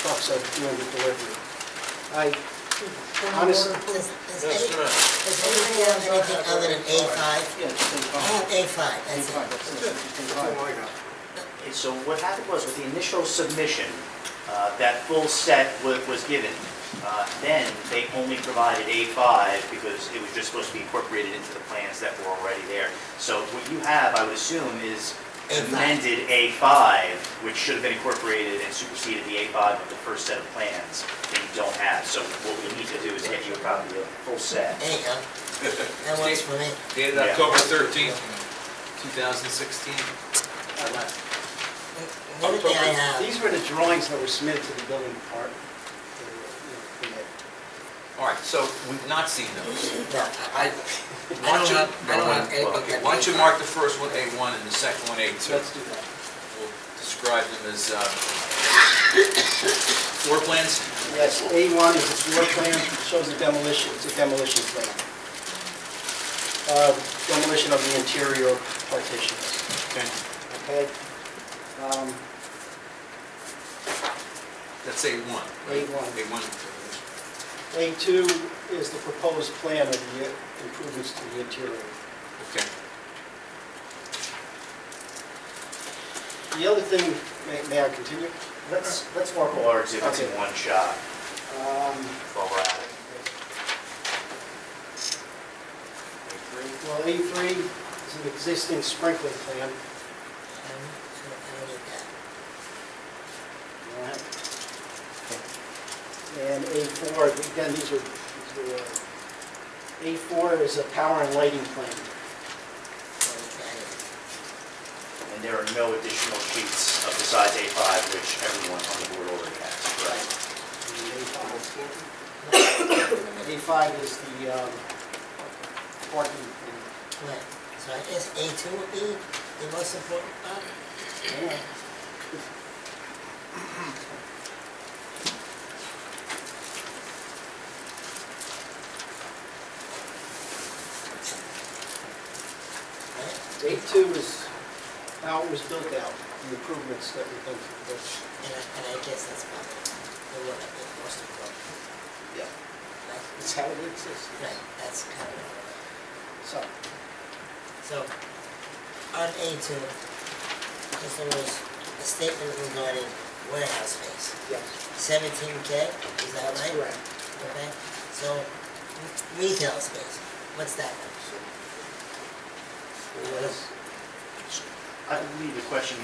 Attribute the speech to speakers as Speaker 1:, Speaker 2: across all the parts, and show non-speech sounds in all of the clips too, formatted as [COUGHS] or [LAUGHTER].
Speaker 1: trucks are doing the delivery. I,
Speaker 2: Honestly.
Speaker 1: Honestly-
Speaker 3: Does, does
Speaker 4: That's
Speaker 3: any,
Speaker 4: correct.
Speaker 3: does anybody have anything other than A five?
Speaker 5: Yeah, just take
Speaker 3: I have
Speaker 5: five.
Speaker 3: A five,
Speaker 5: Take
Speaker 3: that's
Speaker 5: five,
Speaker 3: it.
Speaker 5: that's it. Just take five.
Speaker 6: And so what happened was with the initial submission, uh, that full set wa- was given. Uh, Then they only provided A5 because it was just supposed to be incorporated into the plans that were already there. So what you have, I would assume, is
Speaker 3: A5.
Speaker 6: amended A5, which should have been incorporated and superseded the A5 of the first set of plans that you don't have. So what we need to do is get you a copy of the full set.
Speaker 3: There you go, that works for me.
Speaker 4: Dated
Speaker 6: Yeah.
Speaker 4: October 13th, 2016.
Speaker 3: The other thing I have,
Speaker 1: these were the drawings that were submitted to the building department. They were, you know, they-
Speaker 4: All right, so we've not seen those.
Speaker 3: no,
Speaker 4: I,
Speaker 3: I
Speaker 4: why
Speaker 3: don't
Speaker 4: don't you,
Speaker 3: have, I don't have anything.
Speaker 4: okay,
Speaker 3: that
Speaker 4: why don't you
Speaker 3: A5.
Speaker 4: mark the first one A1 and the second one A2?
Speaker 1: Let's do that.
Speaker 4: We'll describe them as uh, floor plans.
Speaker 1: Yes, A1 is a floor plan, shows the demolition, it's a demolition plan. Uh, Demolition of the interior partitions,
Speaker 4: Okay.
Speaker 1: okay? Um,
Speaker 4: That's A1. right?
Speaker 1: A1.
Speaker 4: A1.
Speaker 1: A2 is the proposed plan of the improvements to the interior.
Speaker 4: Okay.
Speaker 1: The other thing, may- may I continue?
Speaker 6: Let's, let's mark all our exhibits in
Speaker 1: Okay.
Speaker 6: one shot
Speaker 1: Um,
Speaker 6: while we're at it.
Speaker 1: Well, A3 is an existing sprinkler plan.
Speaker 3: Um, I don't need that.
Speaker 1: All right. And A4, again, these are, these are, uh, A4 is a power and lighting plan.
Speaker 3: Okay.
Speaker 6: And there are no additional sheets of the size A5, which everyone on the board already has, correct?
Speaker 1: And A5 A5 is the um, parking plan.
Speaker 3: Right, so I guess A two would be the most important part.
Speaker 1: Yeah.
Speaker 3: right?
Speaker 1: A2 is how it was built out, the improvements that we've done to the building.
Speaker 3: And I, and I guess that's probably the one that the most important.
Speaker 1: Yeah.
Speaker 3: Right,
Speaker 1: That's how it exists.
Speaker 3: right, that's kind of,
Speaker 1: So,
Speaker 3: so, on A two, because there was a statement regarding warehouse space,
Speaker 1: yes,
Speaker 3: seventeen K, is that
Speaker 1: that's
Speaker 3: right?
Speaker 1: correct.
Speaker 3: Okay, so, retail space, what's that?
Speaker 1: Yes.
Speaker 6: I believe the question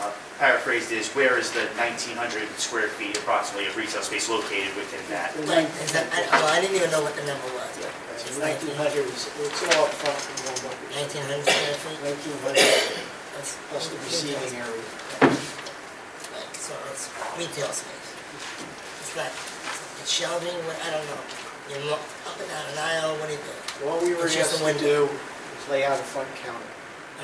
Speaker 6: uh, paraphrased is, where is the 1,900 square feet approximately of retail space located within that?
Speaker 1: The
Speaker 3: Right, is that, I,
Speaker 1: nineteen-
Speaker 3: well, I didn't even know what the number was.
Speaker 1: the 1900 is, it's all up front in one bucket.
Speaker 3: Nineteen hundred square feet?
Speaker 1: 1900
Speaker 3: That's-
Speaker 1: plus the receiving area.
Speaker 3: Right, so it's retail space. It's not, it's shelving, what- I don't know. You look up and down an aisle, what do you do?
Speaker 1: All we were
Speaker 3: It's just
Speaker 1: asked
Speaker 3: a
Speaker 1: to do
Speaker 3: window.
Speaker 1: is lay out a front counter.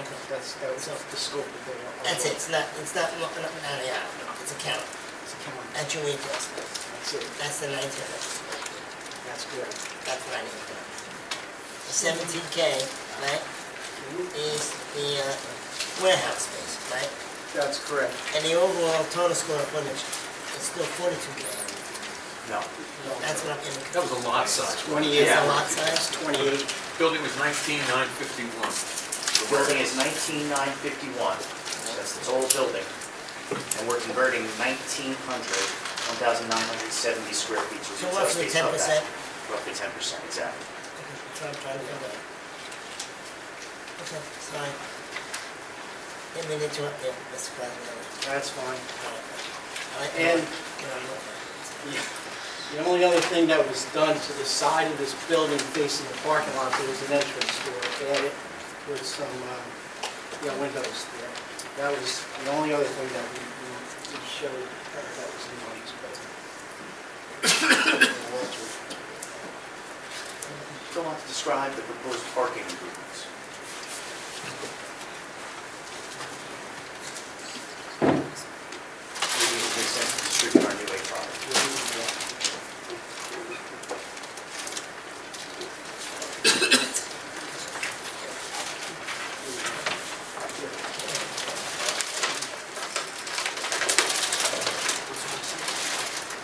Speaker 3: Okay,
Speaker 1: That's, that was the scope of the...
Speaker 3: that's it, it's not, it's not looking up and down the aisle, it's a counter.
Speaker 1: It's a counter.
Speaker 3: That's your retail space.
Speaker 1: That's it.
Speaker 3: That's the nineteen hundred square feet.
Speaker 1: That's correct.
Speaker 3: That's what I need to know. The seventeen K, right, is the uh, warehouse space, right?
Speaker 1: That's correct.
Speaker 3: And the overall total square footage is still forty-two K.
Speaker 6: No.
Speaker 3: That's what I'm getting.
Speaker 4: That was a lot size.
Speaker 1: 28.
Speaker 3: It's a lot
Speaker 1: It's
Speaker 3: size?
Speaker 1: 28.
Speaker 4: Building was 19,951.
Speaker 6: The building is 19951, that's the total building, and we're converting 1,900, 1,970 square feet to
Speaker 3: So
Speaker 6: retail
Speaker 3: roughly
Speaker 6: space.
Speaker 3: ten
Speaker 6: of
Speaker 3: percent.
Speaker 6: that. Roughly 10%, exactly.
Speaker 3: Okay, I'm trying to figure that. Okay, sorry. Didn't mean to interrupt you, Mr. President.
Speaker 1: That's fine.
Speaker 3: All right.
Speaker 1: And-
Speaker 3: Get on with it.
Speaker 1: The- The only other thing that was done to the side of this building facing the parking lot, there was an entrance door added with some, um, you know, windows there. That was the only other thing that we we- we showed uh, that was in on this building. [COUGHS]
Speaker 6: Go on to describe the proposed parking improvements.